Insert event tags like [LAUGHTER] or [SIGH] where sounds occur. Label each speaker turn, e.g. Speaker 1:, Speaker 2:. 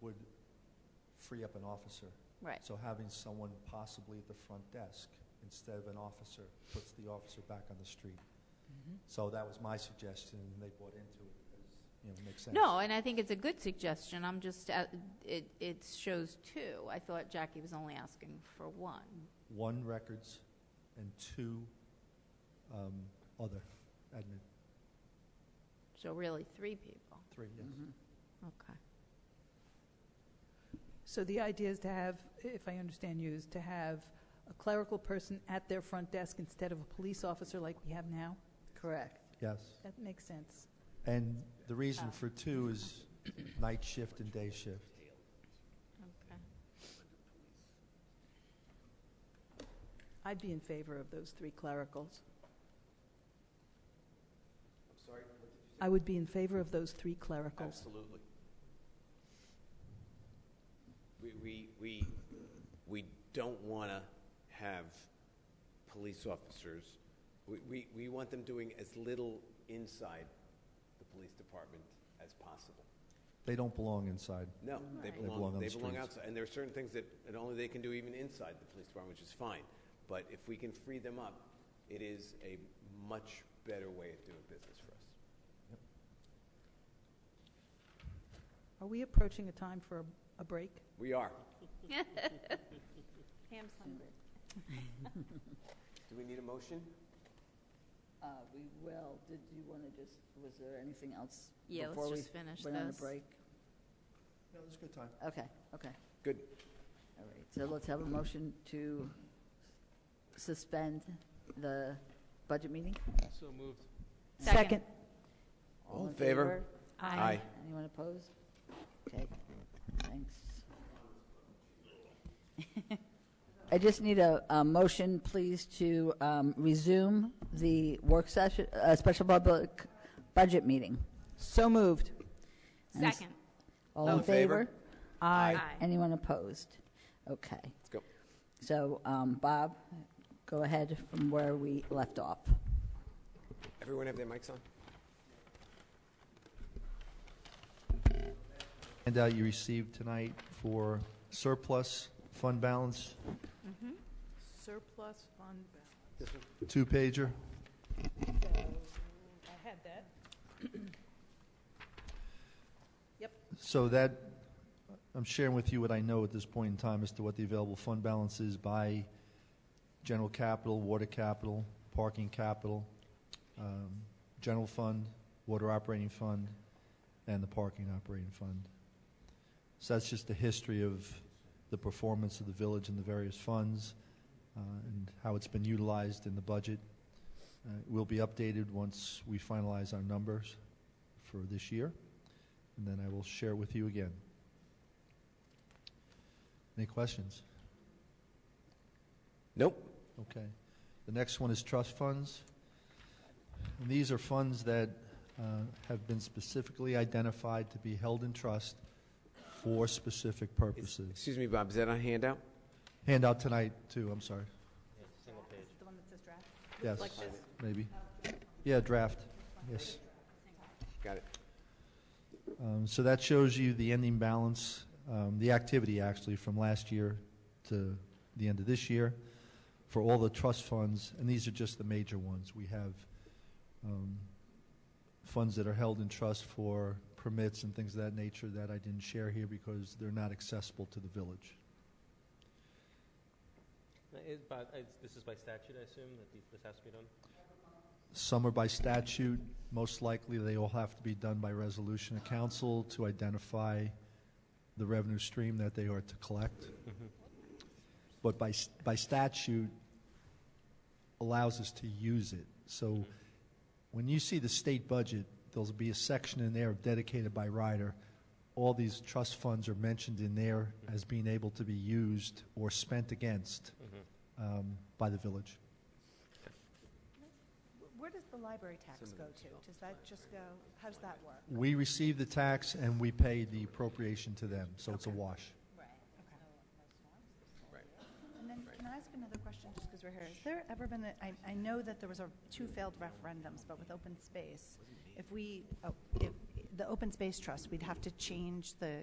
Speaker 1: would free up an officer.
Speaker 2: Right.
Speaker 1: So having someone possibly at the front desk instead of an officer puts the officer back on the street. So that was my suggestion, and they bought into it, as, you know, makes sense.
Speaker 2: No, and I think it's a good suggestion. I'm just, uh, it, it shows two. I thought Jackie was only asking for one.
Speaker 1: One records and two um, other admin,
Speaker 2: So really, three people.
Speaker 1: three, yes.
Speaker 3: Mm-hmm.
Speaker 2: Okay.
Speaker 4: So the idea is to have, if I understand you, is to have a clerical person at their front desk instead of a police officer like we have now?
Speaker 5: Correct.
Speaker 1: Yes.
Speaker 4: That makes sense.
Speaker 1: And the reason
Speaker 2: Oh.
Speaker 1: for two is night shift and day shift.
Speaker 2: Okay.
Speaker 4: I'd be in favor of those three clericals. I'm sorry, what did you say? I would be in favor of those three clericals.
Speaker 3: Absolutely. We, we, we, we don't want to have police officers. We, we, we want them doing as little inside the police department as possible.
Speaker 1: They don't belong inside.
Speaker 3: No, they
Speaker 2: Right. They
Speaker 1: belong on
Speaker 3: belong,
Speaker 1: the
Speaker 3: they belong
Speaker 1: streets.
Speaker 3: outside. And there are certain things that, that only they can do even inside the police department, which is fine. But if we can free them up, it is a much better way of doing business for us.
Speaker 4: Uh, Are we approaching a time for a- a break?
Speaker 3: We are.
Speaker 2: Pam's hungry.
Speaker 3: Do we need a motion?
Speaker 5: Uh, We will, did you want to just, was there anything else?
Speaker 2: Yeah,
Speaker 5: before
Speaker 2: let's
Speaker 5: we
Speaker 2: just finish
Speaker 5: Went on a
Speaker 2: this.
Speaker 5: break?
Speaker 1: No, it's a good time.
Speaker 5: Okay, okay,
Speaker 3: Good.
Speaker 5: all right. So let's have a motion to suspend the budget meeting?
Speaker 6: So moved.
Speaker 2: Second.
Speaker 3: All in favor? Aye.
Speaker 5: Anyone opposed? Okay, thanks. [LAUGHS] I just need a, a motion, please, to um, resume the work session, uh, special public budget meeting.
Speaker 4: So moved.
Speaker 5: And s-
Speaker 2: Second.
Speaker 5: All
Speaker 3: All
Speaker 5: in
Speaker 3: in favor?
Speaker 5: favor? Anyone opposed? Okay.
Speaker 3: Let's go.
Speaker 5: So, um, Bob, go ahead from where we left off.
Speaker 3: Everyone have their mics on?
Speaker 1: handout you received tonight for surplus fund balance,
Speaker 4: Surplus fund balance.
Speaker 1: two pager.
Speaker 4: I had that.
Speaker 1: So that, I'm sharing with you what I know at this point in time as to what the available fund balance is by general capital, water capital, parking capital, um, general fund, water operating fund, and the parking operating fund. So that's just the history of the performance of the village and the various funds uh, and how it's been utilized in the budget. Uh, It will be updated once we finalize our numbers for this year and then I will share with you again. Any questions?
Speaker 3: Nope.
Speaker 1: Okay. The next one is trust funds. And these are funds that uh, have been specifically identified to be held in trust for specific
Speaker 3: Is-
Speaker 1: purposes.
Speaker 3: Excuse me, Bob, is that on handout?
Speaker 1: Handout tonight, too, I'm sorry.
Speaker 4: The one that says draft?
Speaker 1: Yes,
Speaker 4: Like this?
Speaker 1: maybe. Yeah, draft, yes.
Speaker 3: Got it.
Speaker 1: Um, So that shows you the ending balance, um, the activity actually from last year to the end of this year for all the trust funds, and these are just the major ones. We have um, funds that are held in trust for permits and things of that nature that I didn't share here because they're not accessible to the village.
Speaker 6: It, but it's, this is by statute, I assume, that the- this has to be done?
Speaker 1: Some are by statute, most likely they all have to be done by resolution of council to identify the revenue stream that they are to collect. But by, s- by statute allows us to use it. So when you see the state budget, there'll be a section in there dedicated by rider. All these trust funds are mentioned in there as being able to be used or spent against um, by the village.
Speaker 7: Where does the library tax go to? Does that just go, how does that work?
Speaker 1: We receive the tax and we pay the appropriation to them, so it's a wash.
Speaker 7: uh, And then, can I ask another question, just because we're here? Has there ever been, a- I, I know that there was a, two failed referendums, but with open space, if we, oh, if, the open space trust, we'd have to change the